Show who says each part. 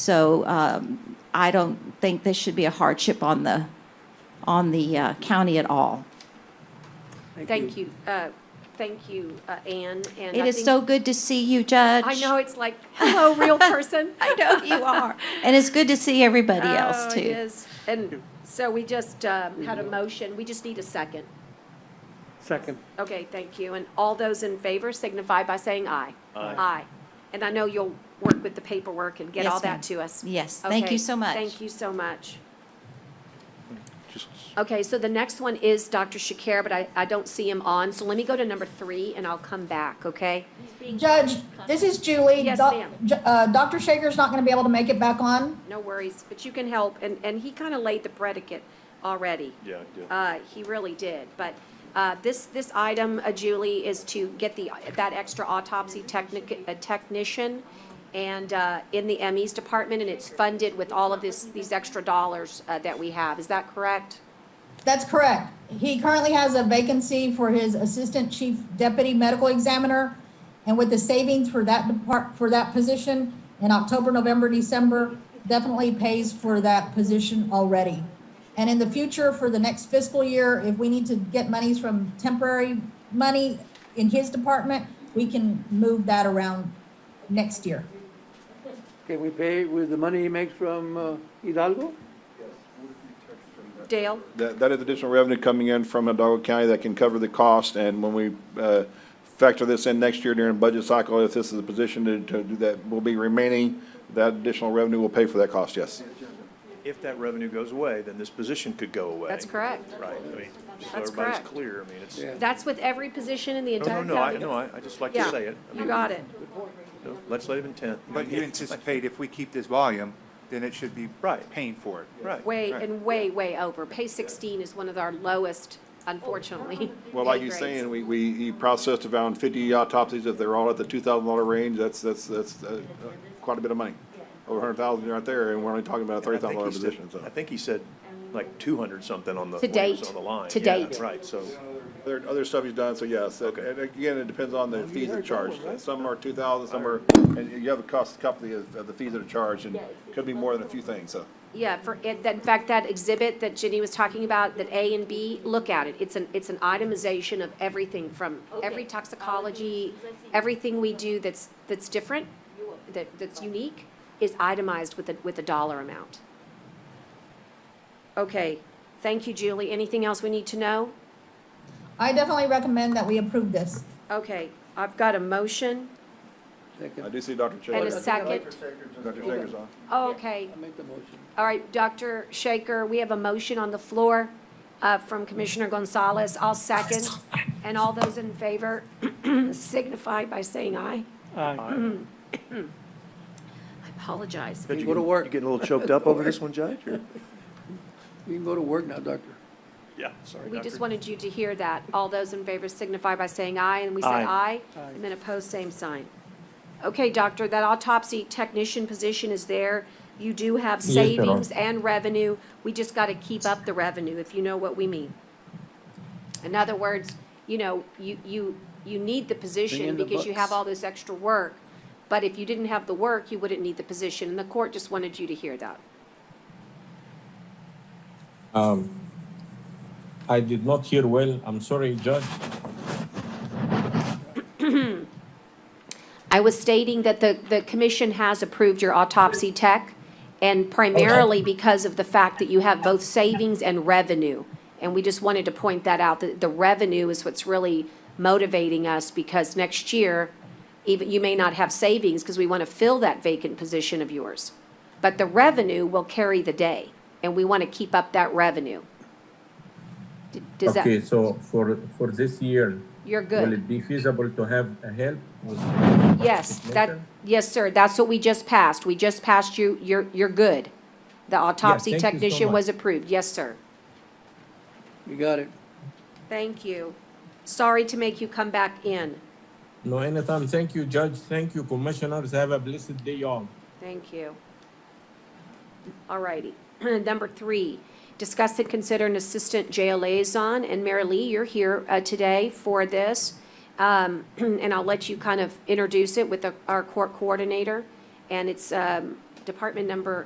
Speaker 1: So um, I don't think this should be a hardship on the, on the uh, county at all.
Speaker 2: Thank you, uh, thank you, uh, Ann, and.
Speaker 1: It
Speaker 2: I
Speaker 1: is
Speaker 2: think-
Speaker 1: so good to see you, Judge.
Speaker 2: I know, it's like, hello, real person. I know
Speaker 1: You are. And it's good to see everybody
Speaker 2: Oh,
Speaker 1: else,
Speaker 2: it
Speaker 1: too.
Speaker 2: is. And so we just uh, had a motion, we just need a second.
Speaker 3: Second.
Speaker 2: Okay, thank you. And all those in favor signify by saying aye.
Speaker 3: Aye.
Speaker 2: Aye. And I know you'll work with the paperwork and get
Speaker 1: Yes,
Speaker 2: all
Speaker 1: ma'am.
Speaker 2: that to us.
Speaker 1: Yes, thank
Speaker 2: Okay,
Speaker 1: you so much.
Speaker 2: Thank you so much.
Speaker 4: Just
Speaker 2: Okay, so the next one is Dr. Shakir, but I, I don't see him on, so let me go to number three and I'll come back, okay?
Speaker 5: Judge, this is Julie.
Speaker 2: Yes,
Speaker 5: Doc-
Speaker 2: ma'am.
Speaker 5: Ju- uh, Dr. Shaker's not going to be able to make it back on.
Speaker 2: No worries, but you can help, and, and he kind of laid the predicate already.
Speaker 4: Yeah, yeah.
Speaker 2: Uh, he really did, but, uh, this, this item, uh, Julie, is to get the, that extra autopsy technic, uh, technician and, uh, in the ME's department, and it's funded with all of this, these extra dollars, uh, that we have, is that correct?
Speaker 5: That's correct. He currently has a vacancy for his Assistant Chief Deputy Medical Examiner. And with the savings for that depart, for that position in October, November, December, definitely pays for that position already. And in the future, for the next fiscal year, if we need to get monies from temporary money in his department, we can move that around next year.
Speaker 3: Can we pay with the money he makes from uh, Hidalgo?
Speaker 2: Dale?
Speaker 4: That, that is additional revenue coming in from Hidalgo County that can cover the cost, and when we, uh, factor this in next year during budget cycle, if this is a position to, to do that, will be remaining, that additional revenue will pay for that cost, yes.
Speaker 6: If that revenue goes away, then this position could go away.
Speaker 2: That's correct.
Speaker 6: Right, I mean, so
Speaker 2: That's
Speaker 6: everybody's
Speaker 2: correct.
Speaker 6: clear, I mean, it's,
Speaker 3: Yeah.
Speaker 2: That's with every position in the
Speaker 6: no, no,
Speaker 2: entire
Speaker 6: no, I,
Speaker 2: county?
Speaker 6: no, I, I just like to
Speaker 2: Yeah,
Speaker 6: say it. I
Speaker 2: you
Speaker 6: mean,
Speaker 2: got it.
Speaker 6: no, Legislative intent.
Speaker 7: But you anticipate if we keep this volume, then it should be
Speaker 6: Right.
Speaker 7: paying for it.
Speaker 6: Right.
Speaker 2: Way,
Speaker 7: Right.
Speaker 2: and way, way over. Pay 16 is one of our lowest, unfortunately.
Speaker 4: Well, like
Speaker 2: pay
Speaker 4: you're
Speaker 2: grades.
Speaker 4: saying, we, we he processed around fifty autopsies, if they're all at the two thousand dollar range, that's, that's, that's, uh, quite a bit of money. Over a hundred thousand right there, and we're only talking about a
Speaker 6: And I
Speaker 4: thirty thousand dollar
Speaker 6: think he said-
Speaker 4: position, so.
Speaker 6: I think he said like two hundred something on the,
Speaker 2: To
Speaker 6: when he was
Speaker 2: date.
Speaker 6: on the line.
Speaker 2: To
Speaker 6: Yeah,
Speaker 2: date.
Speaker 6: Right, so,
Speaker 4: There, other stuff he's done, so yes, and and again, it depends on the fees that are charged, some are two thousand, some are, and you have a cost, couple of, the- of the fees that are charged, and could be more than a few things, so.
Speaker 2: Yeah, for, it- that- in fact, that exhibit that Jenny was talking about, that A and B, look at it. It's an, it's an itemization of everything from every toxicology, everything we do that's, that's different, that, that's unique, is itemized with a, with a dollar amount. Okay, thank you, Julie. Anything else we need to know?
Speaker 5: I definitely recommend that we approve this.
Speaker 2: Okay, I've got a motion
Speaker 4: I do see Dr. Shaker.
Speaker 2: and a second. Oh,
Speaker 4: Dr. Shaker's on.
Speaker 2: Okay,
Speaker 3: I make the motion.
Speaker 2: all right, Dr. Shaker, we have a motion on the floor uh, from Commissioner Gonzalez. I'll second. And all those in favor signify by saying aye. I apologize.
Speaker 3: You
Speaker 6: you
Speaker 3: go to
Speaker 6: get-
Speaker 3: work.
Speaker 6: you getting a little choked up over this one, Judge, or?
Speaker 3: We can go to work now, Doctor.
Speaker 6: Yeah, sorry,
Speaker 2: We just
Speaker 6: Doctor.
Speaker 2: wanted you to hear that. All those in favor signify by saying aye, and we say aye.
Speaker 6: Aye.
Speaker 2: And then opposed, same sign. Okay, doctor, that autopsy technician position is there. You do have savings and revenue. We just got to keep up the revenue, if you know what we mean. In other words, you know, you, you, you need the
Speaker 3: Bring
Speaker 2: position
Speaker 3: in the
Speaker 2: because you have
Speaker 3: books.
Speaker 2: all this extra work. But if you didn't have the work, you wouldn't need the position, and the court just wanted you to hear that.
Speaker 8: I did not hear well. I'm sorry, Judge.
Speaker 2: I was stating that the, the commission has approved your autopsy tech, and primarily because of the fact that you have both savings and revenue. And we just wanted to point that out, that the revenue is what's really motivating us, because next year, even, you may not have savings, because we want to fill that vacant position of yours. But the revenue will carry the day, and we want to keep up that revenue. D- Does
Speaker 8: Okay,
Speaker 2: that,
Speaker 8: so for, for this year,
Speaker 2: you're good?
Speaker 8: will it be feasible to have a help with?
Speaker 2: Yes, that,
Speaker 8: Later?
Speaker 2: yes, sir, that's what we just passed. We just passed you, you're, you're good. The autopsy
Speaker 8: thank you so
Speaker 2: technician was
Speaker 8: much.
Speaker 2: approved, yes, sir.
Speaker 3: You got it.
Speaker 2: Thank you. Sorry to make you come back in.
Speaker 8: No, anytime. Thank you, Judge. Thank you, Commissioners. Have a blessed day, all.
Speaker 2: Thank you. All righty. Number three, discuss and consider an assistant jail liaison, and Mary Lee, you're here uh, today for this. Um, And I'll let you kind of introduce it with the- our court coordinator. And it's um, department number